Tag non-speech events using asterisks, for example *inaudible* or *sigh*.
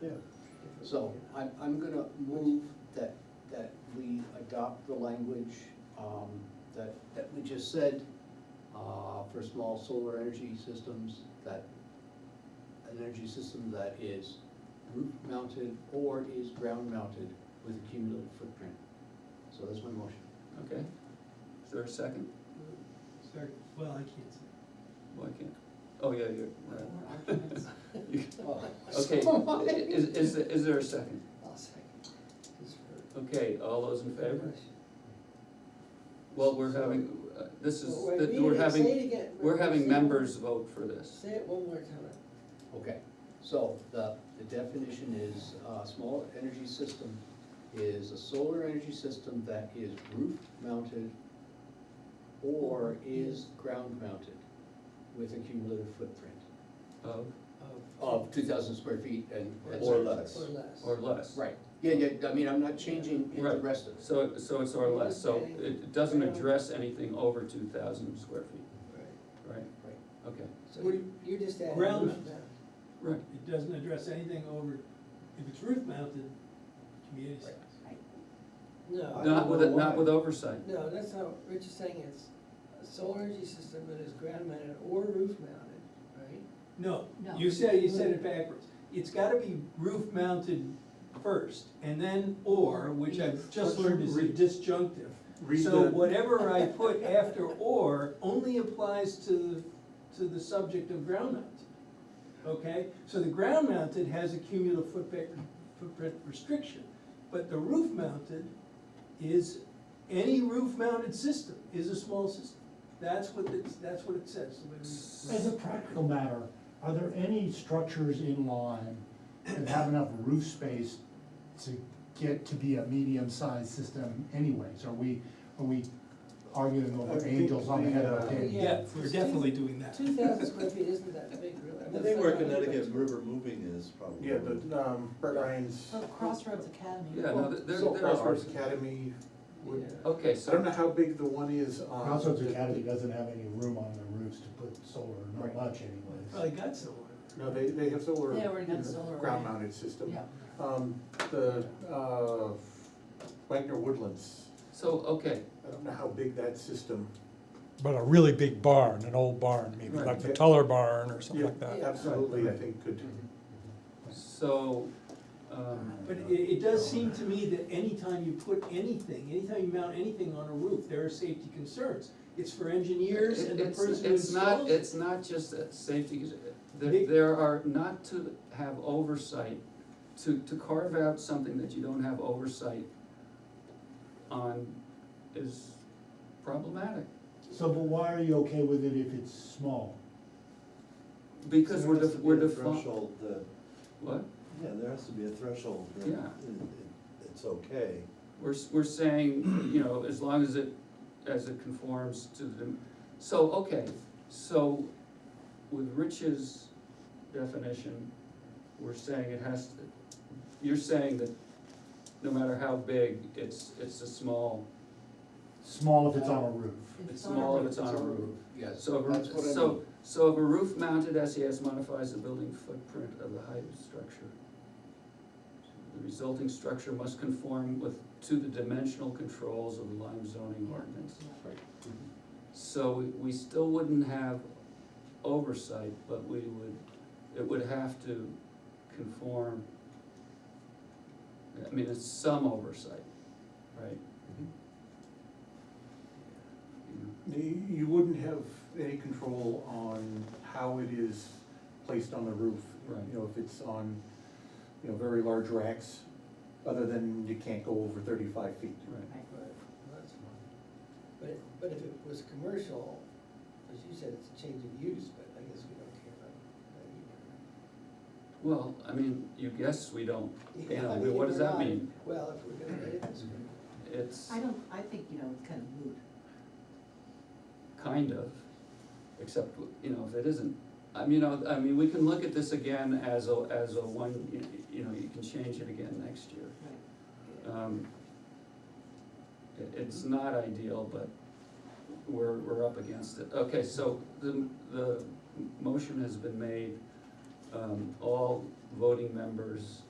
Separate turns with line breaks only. Yeah.
So I'm, I'm gonna move that, that we adopt the language, um, that, that we just said, uh, for small solar energy systems, that an energy system that is roof mounted or is ground mounted with a cumulative footprint. So that's my motion.
Okay, is there a second?
Sorry, well, I can't say.
Why can't, oh, yeah, you're right. You- Okay,
So-
i- is, is, there- is there a second?
*laughs* I'll second.
Okay, all those in favor? Well, we're having, uh, this is,
Well, wait, read
we're
it, say it
having,
again.
we're
Say
having
it.
members vote for this.
Say it one more time.
Okay, so the, the definition is, uh, small energy system is a solar energy system that is roof mounted or is ground mounted with a cumulative footprint
Of,
of two thousand square feet and. and
Or
such.
less.
Or less.
or less.
Right, yeah, yeah, I mean, I'm not changing it the
Right.
rest of it.
So, so it's or less, so it doesn't address anything over two thousand square feet,
Right.
right?
Right.
Okay,
So
What do you-
you're just adding.
Ground
roof
mount.
mount.
right,
It doesn't address anything over, if it's roof mounted, community size.
No.
not with,
know
not
why.
with oversight,
No, that's not, Rich is saying it's a solar energy system that is ground mounted or roof mounted, right?
No,
No.
you said, you said it backwards. It's gotta be roof mounted first, and then or, which I've just learned is a disjunctive.
Read
So
the-
whatever I put after or only applies to, the to the subject of ground mounted. Okay, so the ground mounted has a cumulative footprint, footprint restriction, but the roof mounted is, any roof mounted system is a small system. That's what it's, that's what it says. the way we-
As a practical matter, are there any structures in line that have enough roof space to get to be a medium-sized system anyways? Are we, are we arguing
I
over
think
angels on the head of a
the, uh,
pin?
Yeah, we're definitely doing that.
Two thousand square feet isn't that big, really.
I think where Connecticut River Moving is probably.
Yeah, but,
um, Brett Ryan's.
Oh, Crossroads Academy.
yeah, Oh, no, th- there, there are.
Crossroads Academy, would-
Yeah.
Okay,
I don't know
so,
how big the one is on.
Crossroads Academy doesn't have any room on their roofs to put solar,
Right.
not much
Probably
anyways.
got somewhere.
No, they, they have solar.
They already got
in the
solar, right.
Ground mounted system.
Yeah.
Um, the, uh, Wagner Woodlands,
so, okay,
I don't know how big that system.
But a really big barn, an old barn, maybe
Right.
like the Teller barn or something like
Yeah,
that.
Absolutely, I think could,
so, um,
But it, it does seem to me that anytime you put anything, anytime you mount anything on a roof, there are safety concerns. It's for engineers
It-
and the
it's-
person who
It's not,
installs it.
it's not just a safety, issue.
They-
there, there are, not to have oversight, to, to carve out something that you don't have oversight on is problematic.
So, but why are you okay with it if it's small?
Because we're,
There has
def-
to be
we're
a
defining,
Threshold, the,
what,
yeah, there has to be a threshold. that
Yeah.
it- it- It's okay.
we're, s- we're saying, you know, as long as it, as it conforms to the, so, okay, so with Rich's definition, we're saying it has to, you're saying that no matter how big, it's, it's a small,
Small if it's
Uh,
on a roof.
it's
on a
small if
roof.
it's on a roof.
Yes,
So,
that's
if a-
what I mean.
so, so if a roof mounted SES modifies the building footprint of the height of the structure, the resulting structure must conform with, to the dimensional controls of the Lime zoning ordinance. So we- we still wouldn't have oversight, but we would, it would have to conform. I mean, it's some oversight, right? You know.
You you wouldn't have any control on how it is placed on the roof.
Right.
You know, if it's on, you know, very large racks, other than you can't go over thirty-five feet.
Right,
Right, well, that's fine. But, it- but if it was commercial, as you said, it's a change of use, but I guess we don't care about that either.
well, I mean, you guess we don't, you
Yeah,
know,
I mean,
what does
we're
that
not-
mean?
Well, if we're gonna rate this, we
It's
I don't, I think, you know, it's kind of moot.
kind of, except, you know, if it isn't. I mean, you know, I mean, we can look at this again as a, as a one, you- you know, you can change it again next year. Um, It, it's not ideal, but we're, we're up against it. Okay, so the, the motion has been made. Um, All voting members